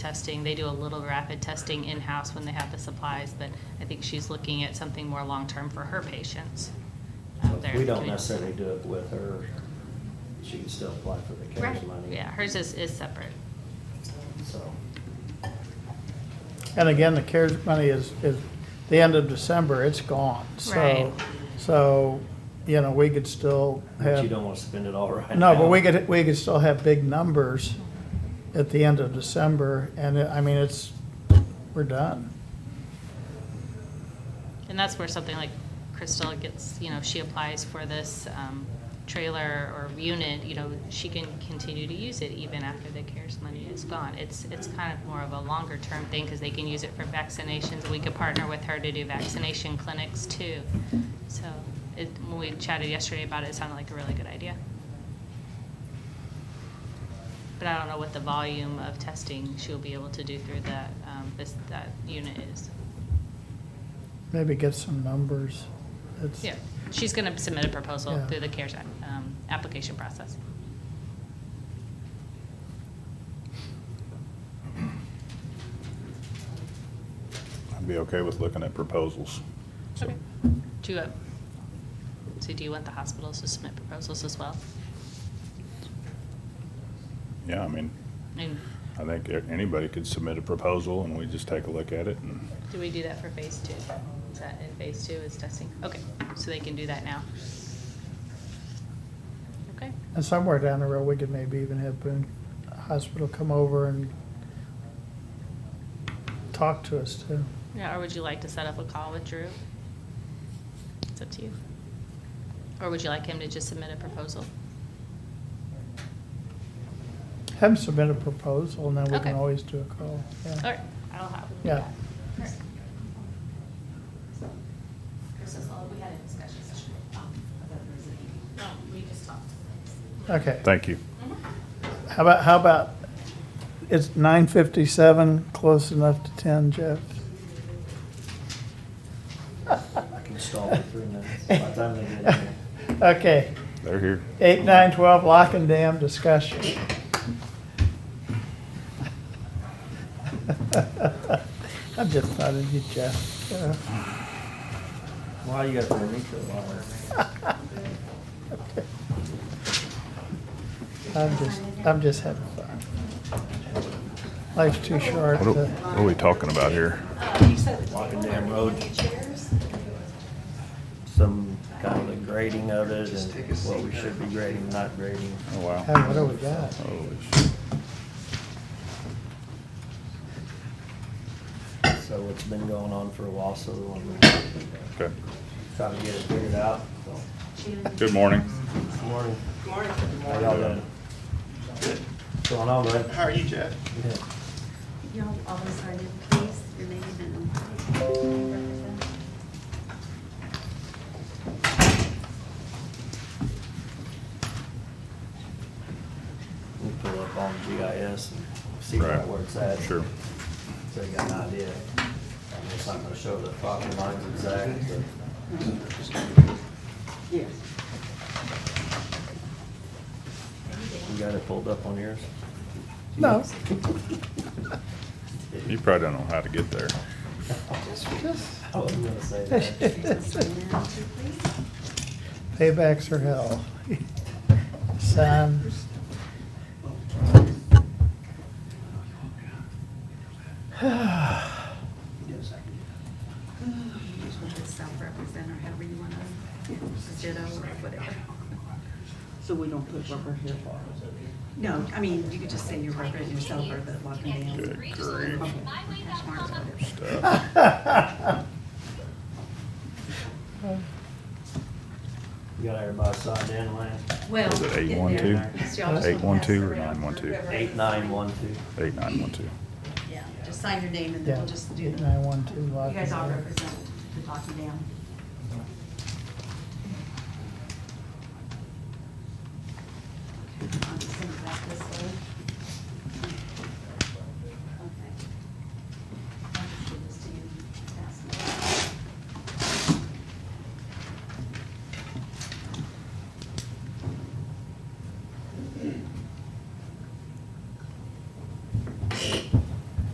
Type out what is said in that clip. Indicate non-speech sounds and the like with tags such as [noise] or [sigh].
testing. They do a little rapid testing in-house when they have the supplies, but I think she's looking at something more long-term for her patients out there. We in the don't community. necessarily do it with her. She can still apply for the CARES Right. money. Yeah, hers is, is separate. So, And again, the CARES money is, is the end of December, it's gone. Right. So, so, you know, we could still but you have, don't want to spend it all right no, but now. we could, we could still have big numbers at the end of December. And it- I mean, it's, we're done. And that's where something like Crystal gets, you know, she applies for this um, trailer or unit, you know, she can continue to use it even after the CARES money is gone. It's, it's kind of more of a longer-term thing because they can use it for vaccinations. We could partner with her to do vaccination clinics too. So it, when we chatted yesterday about it, it sounded like a really good idea. But I don't know what the volume of testing she'll be able to do through that, um, this, that unit is. Maybe get some numbers. It's, Yeah, she's going to submit a proposal Yeah. through the CARES Act, um, application process. I'd be okay with looking at proposals. Okay. Do you, uh, so do you want the hospitals to submit proposals as well? Yeah, I mean, I mean, I think anybody could submit a proposal and we just take a look at it and, do we do that for phase two? Is that in phase two is testing? Okay, so they can do that now? Okay, and somewhere down the road, we could maybe even have Boone Hospital come over and talk to us too. yeah, or would you like to set up a call with Drew? It's up to you. Or would you like him to just submit a proposal? Have them submit a proposal and then we Okay. can always do a call. Yeah. All right, I'll have him do Yeah. that. All right. Chris is all, we had a discussion session. um, No, we just talked. Okay. thank you. Mm-hmm. How about, how about, it's nine fifty-seven, close enough to ten, Jeff? I can stall for three minutes. By the time they get in here. [laughs] Okay, They're here. eight, nine, twelve, lock and dam discussion. [laughs] I'm just thought of you, Jeff. Yeah. Why you got to reach it longer? I'm just, I'm just having fun. Life's too short What are, to, what are we talking about here? Walking down road. Some kind of the grading of it and what we should be grading, not grading. Oh, wow. Hey, what do we got? Holy shit. So it's been going on for a while, so we want Okay. try to get it figured out. So, Good morning. Good morning. Good morning. How y'all doing? What's going on, bud? How are you, Jeff? Y'all always are, please, your name and. We pull up on GIS and see Right. where it's at. Sure. So you got an idea. I mean, It's not gonna show the property lines exactly, but. Yes. You got it pulled up on yours? No, You probably don't know how to get there. just, [laughs] I wasn't gonna say that. Paybacks are hell. [laughs] Son. Self-represent or however you want to, ditto or whatever. So we don't put rubber here. No, I mean, you could just say you're representing yourself or the walking down. Good grief. Hash marks or whatever. Stuff. You got everybody signed in, Lance? Well. Is it eight getting one two? there. It's y'all just Eight wanna one pass two it or around nine one for two? whoever- Eight, nine, one, two. Eight nine one two. Yeah, just sign your name and then Yeah, we'll just do eight that. nine one two You lock. guys all and load. represent the talking down.